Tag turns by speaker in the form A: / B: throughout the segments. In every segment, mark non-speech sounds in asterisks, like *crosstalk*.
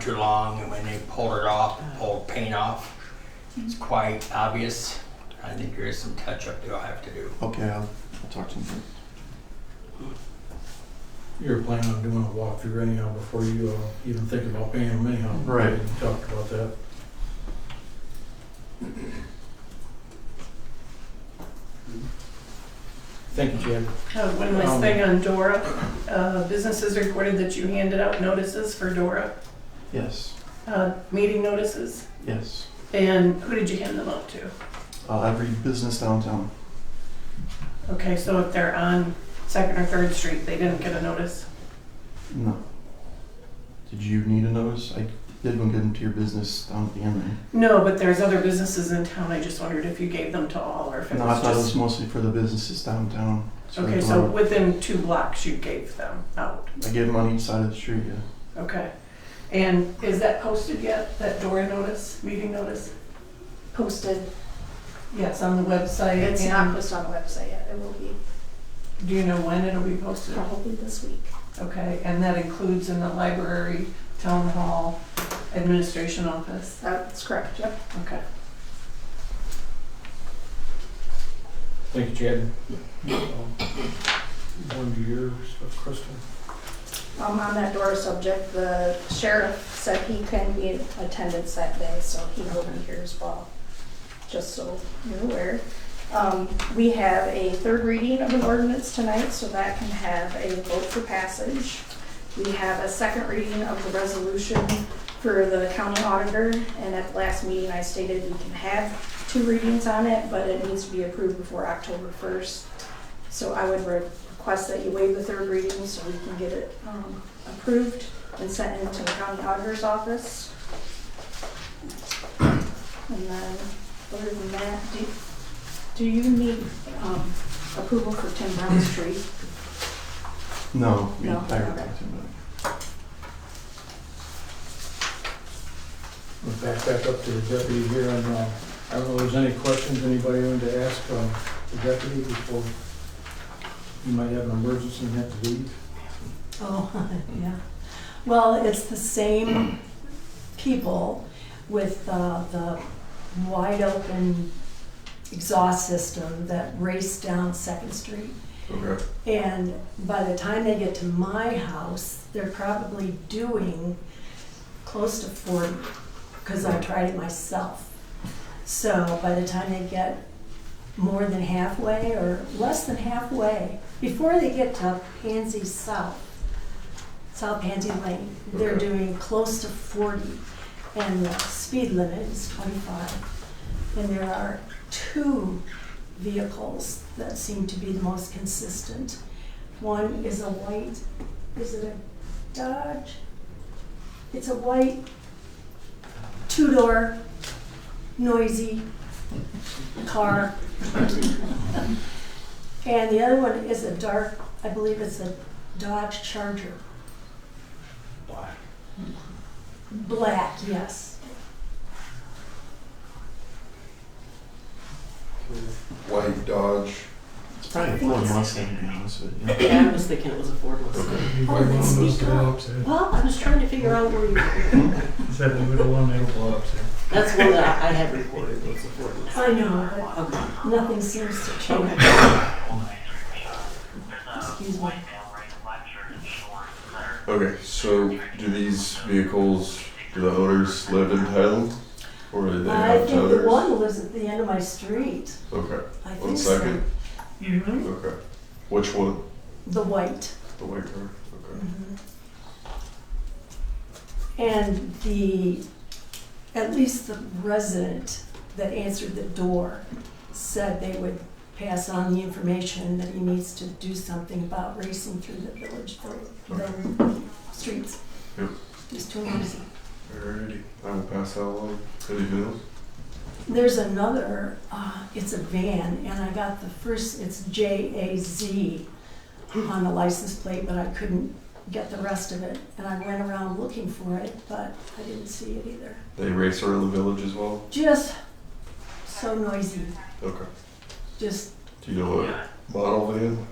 A: too long, and when they pull it off, pull paint off, it's quite obvious. I think there is some touch-up they'll have to do.
B: Okay, I'll, I'll talk to him. first.
C: You're planning on doing a walkthrough anyhow before you uh, even think about paying them anyhow.
B: Right.
C: We Talked about that. Thank you, Chad.
D: Uh, One last
C: Um,
D: thing on Dora. Uh, Businesses reported that you handed out notices for Dora,
B: Yes,
D: uh, meeting notices.
B: yes.
D: And who did you hand them out to?
B: Uh, every business downtown.
D: Okay, so if they're on Second or Third Street, they didn't get a notice?
B: No. Did you need a notice? I did one get into your business down at the end there.
D: No, but there's other businesses in town. I just wondered if you gave them to all or if it
B: No, I
D: was
B: thought it
D: just.
B: was mostly for the businesses downtown. So
D: Okay,
B: I
D: so
B: bought-
D: within two blocks, you gave them out.
B: I gave them on each side of the street, yeah.
D: Okay. And is that posted yet, that Dora notice, meeting notice?
E: posted.
D: Yes, on the website.
E: It's
D: and-
E: not posted on the website yet. It will be
D: Do you know when it'll be posted?
E: probably this week.
D: Okay, and that includes in the library, town hall, administration office?
E: That's correct, yep.
D: Okay.
C: Thank you, Chad. One of your stuff, Kristen.
E: Um, on that Dora subject, the sheriff said he couldn't be in attendance that day, so he will be here as well. Just so you're aware. Um, we have a third reading of an ordinance tonight, so that can have a vote for passage. We have a second reading of the resolution for the county auditor, and at the last meeting I stated we can have two readings on it, but it needs to be approved before October first. So I would re- request that you waive the third reading so we can get it um, approved and sent into the county auditor's office. And then, other than that, do, do you need um, approval for Tim Brown Street?
B: No, we,
E: No,
B: I already
E: okay.
B: talked to him about it.
C: We'll back back up to the deputy here, and uh, I don't know if there's any questions anybody wanted to ask um, the deputy before you might have an emergency and have to leave.
D: *laughs*
F: Oh, yeah. Well, it's the same people with uh, the wide open exhaust system that race down Second Street.
B: Okay.
F: And by the time they get to my house, they're probably doing close to 40, because I tried it myself. So by the time they get more than halfway or less than halfway, before they get to Pansy South, South Pansy Lane, they're
B: Okay.
F: doing close to 40, and the speed limit is 25. And there are two vehicles that seem to be the most consistent. One is a white, is it a Dodge? It's a white, two-door, noisy car. And the other one is a dark, I believe it's a Dodge Charger. Black, yes.
G: White Dodge.
B: It's probably a Ford Mustang, to be honest with you.
H: Yeah, I was thinking it was a Ford Mustang.
F: Oh, they sneak up. Well, I was trying to figure out where you were.
H: That's one that I I had recorded was a Ford Mustang.
F: I know,
H: Okay.
F: but nothing seems to change. Excuse me.
G: Okay, so do these vehicles, do the owners live in town? Or do they
F: I
G: have
F: think the
G: tethers?
F: one lives at the end of my street.
G: Okay,
F: I
G: one
F: think so.
G: second. Okay. Which one?
F: The white. Mm-hmm.
G: The white car? Okay.
F: And the, at least the resident that answered the door said they would pass on the information that he needs to do something about racing through the village, the, the streets.
G: Yep.
F: It's too noisy.
G: Alrighty, I will pass that along. Anything else?
F: There's another, uh, it's a van, and I got the first, it's J A Z on the license plate, but I couldn't get the rest of it. And I went around looking for it, but I didn't see it either.
G: They race around the village as well?
F: Just so noisy,
G: Okay.
F: just,
G: Do you know what model van?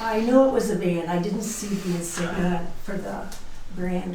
F: I know it was a van, I didn't see the insignia for the brand